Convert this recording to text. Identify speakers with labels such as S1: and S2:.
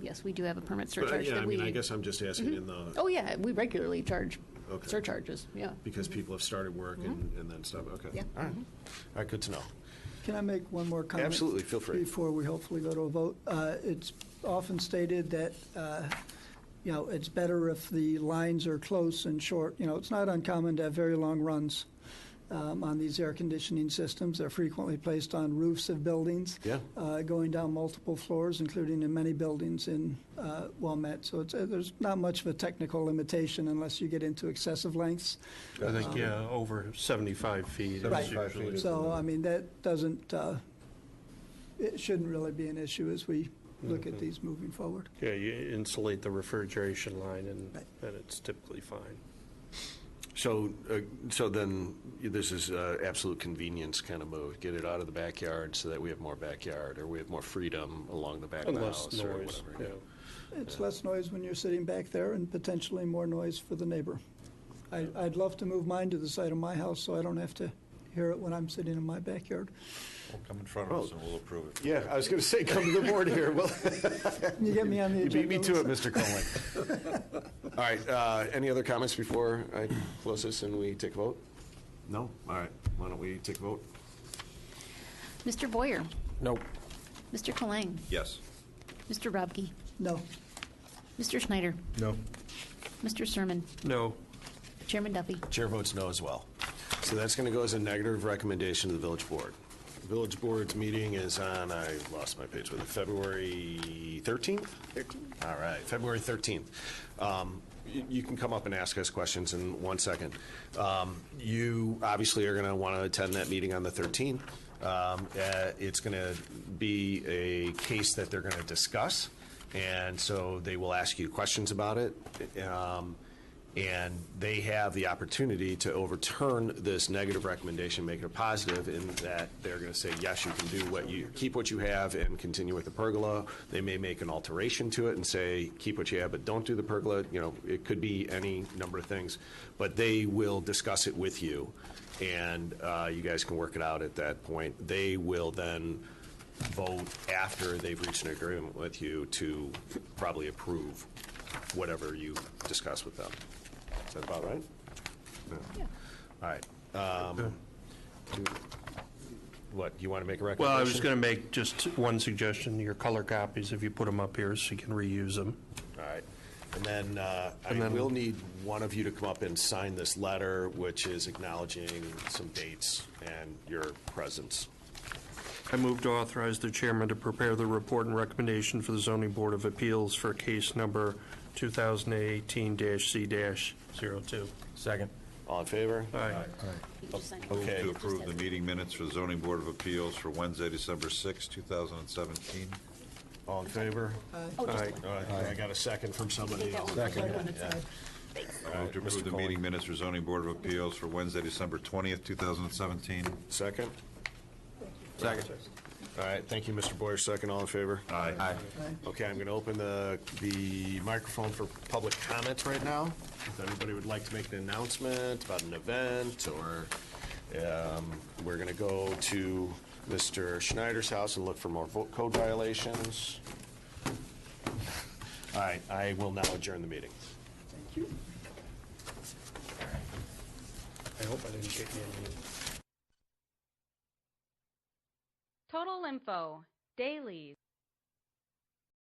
S1: yes, we do have a permit
S2: But, I-
S1: surcharge
S2: yeah,
S1: that
S2: I
S1: we.
S2: mean, I guess I'm just asking in the,
S1: Oh, yeah, we regularly charge
S2: Okay.
S1: surcharges, yeah.
S2: because people have started work and, and then stuff, okay.
S1: Yeah.
S2: All right, all right, good to know.
S3: Can I make one more comment?
S2: Absolutely, feel free.
S3: Before we hopefully go to a vote. Uh, It's often stated that, uh, you know, it's better if the lines are close and short. You know, it's not uncommon to have very long runs um, on these air conditioning systems. They're frequently placed on roofs of buildings.
S2: Yeah.
S3: uh, Going down multiple floors, including in many buildings in uh, Wilmette. So it's, uh, there's not much of a technical limitation unless you get into excessive lengths.
S4: I think, yeah, over 75 feet.
S3: Right.
S4: is usually-
S3: So, I mean, that doesn't, uh, it shouldn't really be an issue as we look at these moving forward.
S4: Yeah, you insulate the refrigeration line, and
S3: Right.
S4: and it's typically fine.
S2: So, uh, so then, this is uh, absolute convenience kind of move, get it out of the backyard so that we have more backyard, or we have more freedom along the back of the
S4: Unless
S2: house, or
S4: noise,
S2: whatever.
S4: yeah.
S2: yeah.
S3: It's less noise when you're sitting back there and potentially more noise for the neighbor. I, I'd love to move mine to the side of my house so I don't have to hear it when I'm sitting in my backyard.
S5: Well, Come in front of us and we'll approve it.
S6: Yeah, I was going to say, come to the board here. Well,
S3: Can you get me on the
S6: you
S3: agenda?
S6: beat me to it,
S3: Lisa?
S6: Mr. Conley.
S2: All right, uh, any other comments before I close this and we take a vote? No? All right, why don't we take a vote?
S1: Mr. Boyer,
S2: Nope.
S1: Mr. Colang,
S5: Yes.
S1: Mr. Robke,
S3: No.
S1: Mr. Schneider,
S5: No.
S1: Mr. Sermon,
S4: No,
S1: Chairman Duffy.
S2: Chair votes no as well. So that's going to go as a negative recommendation to the village board. Village board's meeting is on, I lost my page with it, February 13th? 13th. All right, February 13th. Um, y- You can come up and ask us questions in one second. Um, You obviously are going to want to attend that meeting on the 13th. Um, uh, It's going to be a case that they're going to discuss, and so they will ask you questions about it. Um, and they have the opportunity to overturn this negative recommendation, make it a positive, in that they're going to say, yes, you can do what you, keep what you have and continue with the pergola. They may make an alteration to it and say, keep what you have, but don't do the pergola. You know, it could be any number of things. But they will discuss it with you, and uh, you guys can work it out at that point. They will then vote after they've reached an agreement with you to probably approve whatever you discuss with them. Is that about right? Yeah. All right. Um, do- What, you want to make a recommendation?
S4: well, I was going to make just one suggestion, your color copies, if you put them up here so you can reuse them.
S2: All right. And then uh,
S4: And
S2: I
S4: then-
S2: will need one of you to come up and sign this letter, which is acknowledging some dates and your presence.
S4: I move to authorize the chairman to prepare the report and recommendation for the zoning board of appeals for case number 2018-C-02.
S7: Second.
S2: All in favor?
S4: Aye.
S5: Move
S2: Okay.
S5: to approve the meeting minutes for the zoning board of appeals for Wednesday, December sixth, two 2017.
S2: All in favor?
S1: Oh, just one.
S2: All right, I got a second from somebody.
S1: Take that one.
S5: I Move to approve the meeting minutes for zoning board of appeals for Wednesday, December twentieth, two 2017.
S2: Second?
S7: Second.
S2: All right, thank you, Mr. Boyer, second, all in favor?
S5: Aye. Aye.
S2: Okay, I'm going to open the, the microphone for public comments right now. If anybody would like to make an announcement about an event, or um, we're going to go to Mr. Schneider's house and look for more vo- code violations. All right, I will now adjourn the meeting.
S4: I hope I didn't get any.
S8: Total Info, Dailies.